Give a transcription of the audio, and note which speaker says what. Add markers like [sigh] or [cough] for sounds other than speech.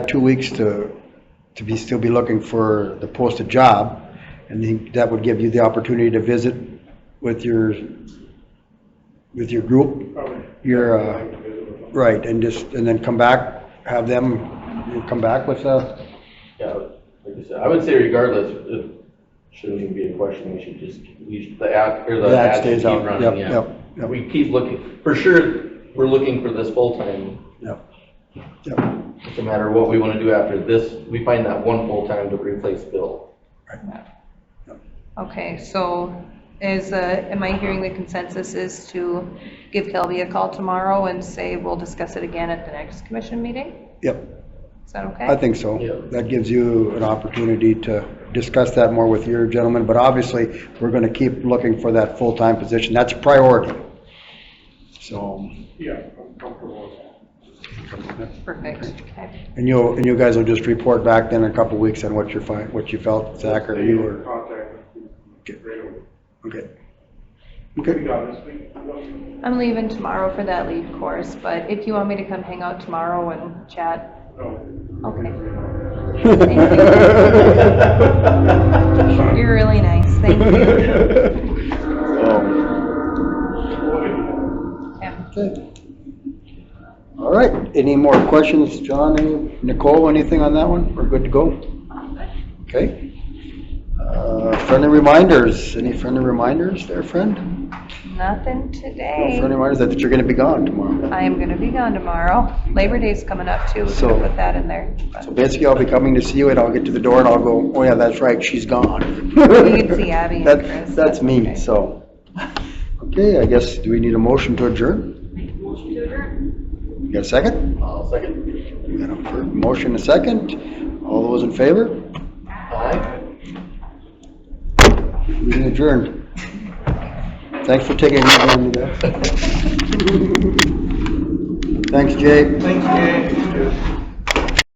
Speaker 1: two weeks to, to be, still be looking for the posted job, and then that would give you the opportunity to visit with your, with your group,
Speaker 2: Probably.
Speaker 1: your, uh,
Speaker 2: Like to visit with them.
Speaker 1: right, and just, and then come back, have them you come back with uh, a,
Speaker 3: Yeah, like I said, I would say regardless, it shouldn't even be a question, we should just, we should, the ad, or the
Speaker 1: that
Speaker 3: ad should
Speaker 1: stays
Speaker 3: keep
Speaker 1: out.
Speaker 3: running,
Speaker 1: Yep,
Speaker 3: yeah.
Speaker 1: yep, yep.
Speaker 3: We keep looking, for sure, we're looking for this full-time,
Speaker 1: Yep. Yep.
Speaker 3: it's a matter of what we wanna do after this, we find that one full-time to replace Bill. [laughs]
Speaker 4: Okay, so is, uh, am I hearing the consensus is to give Kelby a call tomorrow and say we'll discuss it again at the next commission meeting?
Speaker 1: Yep,
Speaker 4: Is that okay?
Speaker 1: I think so.
Speaker 3: Yep.
Speaker 1: That gives you an opportunity to discuss that more with your gentleman, but obviously, we're gonna keep looking for that full-time position. That's priority. So,
Speaker 2: Yeah, I'm comfortable with that.
Speaker 4: Perfect, okay.
Speaker 1: and you'll, and you guys will just report back then in a couple weeks on what you're fi, what you felt, Zach or you
Speaker 2: Stay in
Speaker 1: or,
Speaker 2: Contact.
Speaker 1: Okay.
Speaker 2: Right away.
Speaker 1: okay.
Speaker 2: We
Speaker 1: Okay, [laughs]
Speaker 2: got this week. Nothing.
Speaker 4: I'm leaving tomorrow for that lead course, but if you want me to come hang out tomorrow and chat,
Speaker 2: No.
Speaker 4: okay.
Speaker 3: Thank
Speaker 4: You're really nice, thank you.
Speaker 1: [laughs]
Speaker 4: Yeah.
Speaker 1: Okay. All right, any more questions, John, any- Nicole, anything on that one? We're good to go? Okay. Uh, Friendly reminders, any friendly reminders there, friend? No
Speaker 4: Nothing today.
Speaker 1: friendly reminders that you're gonna be gone tomorrow.
Speaker 4: I am gonna be gone tomorrow. Labor Day's coming up too, we're
Speaker 1: So-
Speaker 4: gonna put that in there. but-
Speaker 1: So basically, I'll be coming to see you and I'll get to the door and I'll go, oh yeah, that's right, she's gone.
Speaker 4: We can see Abby
Speaker 1: [laughs]
Speaker 4: and
Speaker 1: That-
Speaker 4: Chris,
Speaker 1: That's
Speaker 4: that's
Speaker 1: me,
Speaker 4: okay.
Speaker 1: so. Okay, I guess, do we need a motion to adjourn? You got a second?
Speaker 3: I'll second.
Speaker 1: We got a fir- motion, a second. All those in favor?
Speaker 3: Aye.
Speaker 1: Meeting adjourned. Thanks for taking me on with that. [laughs] Thanks, Jay.
Speaker 2: Thanks, Jay.